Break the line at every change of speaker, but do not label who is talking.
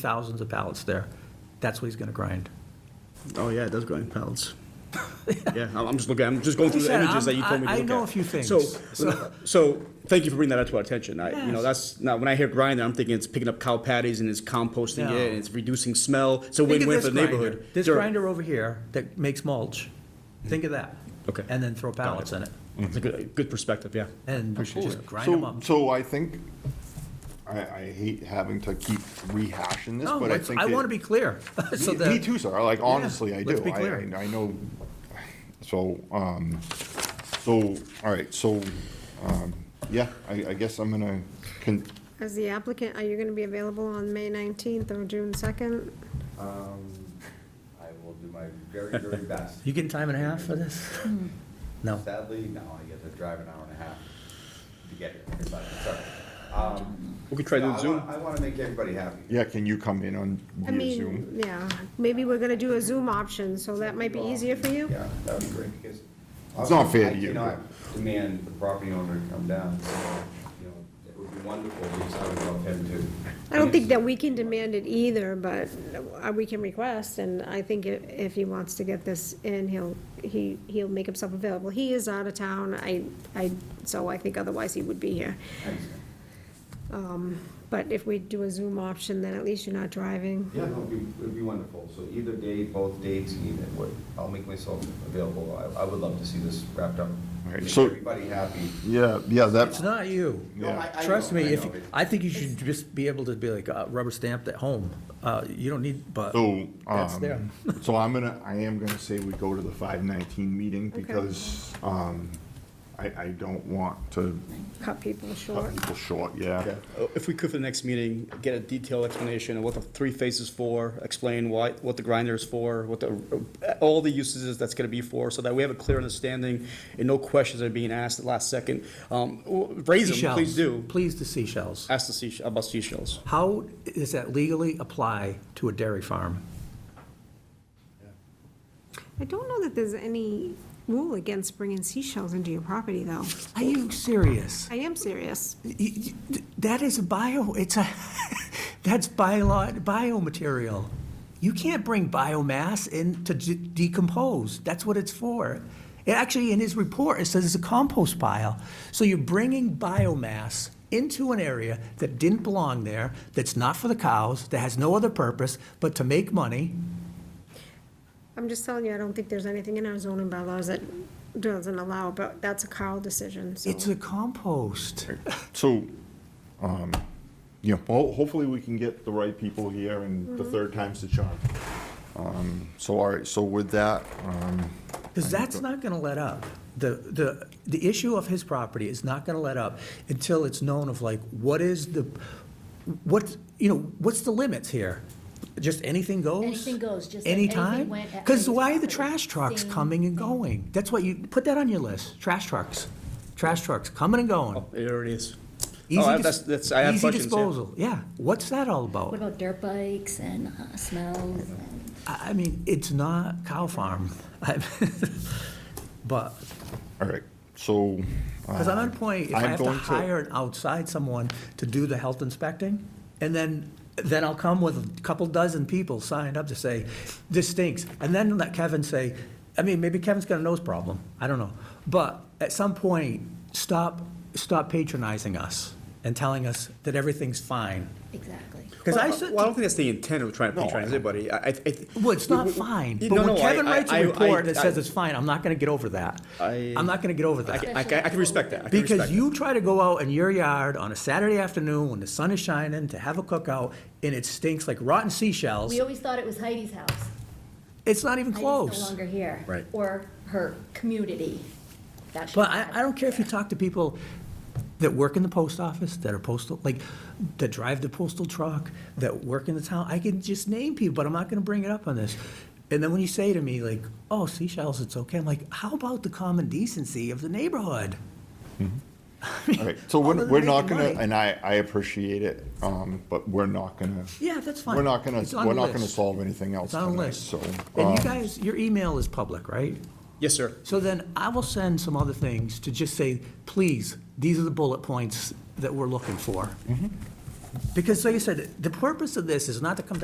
thousands of pallets there. That's what he's gonna grind.
Oh yeah, it does grind pallets. yeah, I'm I'm just looking. I'm just going through
Like I
the
said,
images that you
I'm-
told me. to
I- I
look
know
at.
a few things.
So, so, so thank you for bringing that up to our attention. I, you know,
Yes.
that's now when I hear grinder, I'm thinking it's picking up cow patties and it's composting
No.
it and it's reducing smell. It's a
Think of
win-win
this
for the
grinder.
neighborhood.
This
Sure. Mm-hmm.
grinder over here that makes mulch, think of that.
Okay.
And then throw pallets in it
Mm, It's a good, good perspective. Yeah.
and just
Absolutely.
grind
So-
them up.
So I think, I, I hate having to keep rehashing this,
No,
but I
it's-
think.
I
it-
wanna be clear. so
Me-
that-
Me too, sir, like, honestly, I do.
let's be
I-
clear.
I I know, so, um, so, all right, so, um, yeah, I, I guess I'm gonna, con-
As the applicant, are you gonna be available on May nineteenth or June second?
I will do my very, very best.
You getting time and a half for this?
Mm.
No.
Sadly, no, I get to drive an hour and a half to get here, but it's all right. Um,
We could try doing
no, I wa-
Zoom.
I want to make everybody happy.
yeah, can you come in on
I
via Zoom?
mean, yeah, maybe we're gonna do a Zoom option, so that might be easier for you.
Yeah, that would be great, because.
It's not fair to you.
I cannot demand the property owner to come down, so, you know, it would be wonderful, because I would love him to.
I don't think that we can demand it either, but uh, we can request, and I think i- if he wants to get this in, he'll, he, he'll make himself available. He is out of town, I, I, so I think otherwise he would be here.
Thanks.
But if we do a Zoom option, then at least you're not driving.
Yeah, no, it'd be, it'd be wonderful, so either day, both dates, either, what- I'll make myself available, I, I would love to see this wrapped up.
right,
Make
so-
everybody happy.
Yeah, yeah,
It's
that's,
not you.
No, I- I
Trust
know,
me,
I
if,
know.
you- I think you should just be able to be like, uh, rubber stamped at home. Uh, you don't need, but
so,
that's there.
um, so I'm gonna, I am gonna say we go to the five nineteen meeting because, um, I, I don't want to
Cut people short.
cut people short, yeah.
Uh, If we could for the next meeting, get a detailed explanation of what the three phases for, explain why, what the grinder is for, what the, all the uses that's gonna be for, so that we have a clear understanding and no questions are being asked at last second. Um, w- Raise them,
Seashells.
please do.
Please the seashells.
Ask the seashell, about seashells.
How does that legally apply to a dairy farm?
I don't know that there's any rule against bringing seashells into your property, though.
Are you serious?
I am serious.
Y- y- That is a bio, it's a, that's bio, biomaterial. You can't bring biomass in to d- decompose. That's what it's for. It actually, in his report, it says it's a compost pile. So you're bringing biomass into an area that didn't belong there, that's not for the cows, that has no other purpose but to make money.
I'm just telling you, I don't think there's anything in our zoning bylaws that doesn't allow, but that's a Carl decision, so.
It's a compost.
So, um, you know, ho- hopefully we can get the right people here and
Mm-hmm.
the third time's the charm. Um, so, all right, so with that, um,
Because that's not going to let up. The, the, the issue of his property is not going to let up until it's known of like, what is the, what, you know, what's the limits here? Just anything goes?
Anything goes, just like anything
Anytime?
went at
Because
anybody's
why are the
property.
trash trucks
Same
coming and
thing.
going? That's what you, put that on your list, trash trucks. Trash trucks coming and going.
Oh, There it is.
Easy
Oh, I-
dis-
that's- that's- I have
easy
questions, yeah.
disposal, yeah. What's that all
What
about?
about dirt bikes and uh, smells? and-
I, I mean, it's not cow farm. I- But
all right, so. um,
Because I'm at a point, if I
I'm
have to
going to-
hire an outside someone to do the health inspecting, and then, then I'll come with a couple dozen people signed up to say, this stinks. And then let Kevin say, I mean, maybe Kevin's got a nose problem, I don't know. But at some point, stop, stop patronizing us and telling us that everything's fine.
Exactly.
Because I said,
Well, I don't think that's the intent of trying to
No,
patronize
I-
anybody. I, I. I-
well, it's not
we- we-
fine.
No,
But when
no, I-
Kevin
I-
writes
I-
a report that
I-
says it's fine, I'm not going to get over that.
I-
I'm not going to get over
I,
that.
I- I can respect that. I can
Because
respect
you try to go out in your yard on a Saturday afternoon when the sun is shining to have a cookout and it stinks like rotten seashells,
We always thought it was Heidi's house.
it's not even
Heidi's no
close.
longer here.
Right.
Or her community. That should
But I,
have-
I don't care if you talk to people that work in the post office, that are postal, like, that drive the postal truck, that work in the town, I can just name people, but I'm not gonna bring it up on this. And then when you say to me like, oh, seashells, it's okay, I'm like, how about the common decency of the neighborhood?
Mm-hmm. All right, so
Other
we're,
than
we're not
making
gonna,
money.
and I, I appreciate it, um, but we're not gonna.
Yeah, that's fine.
We're not gonna,
It's on
we're
the
not gonna
list.
solve anything else
It's on a
tonight,
list.
so.
And you
um,
guys, your email is public, right?
that. Yes, sir.
So then I will send some other things to just say, please, these are the bullet points that we're looking for. Because like I said, the purpose of this is not to come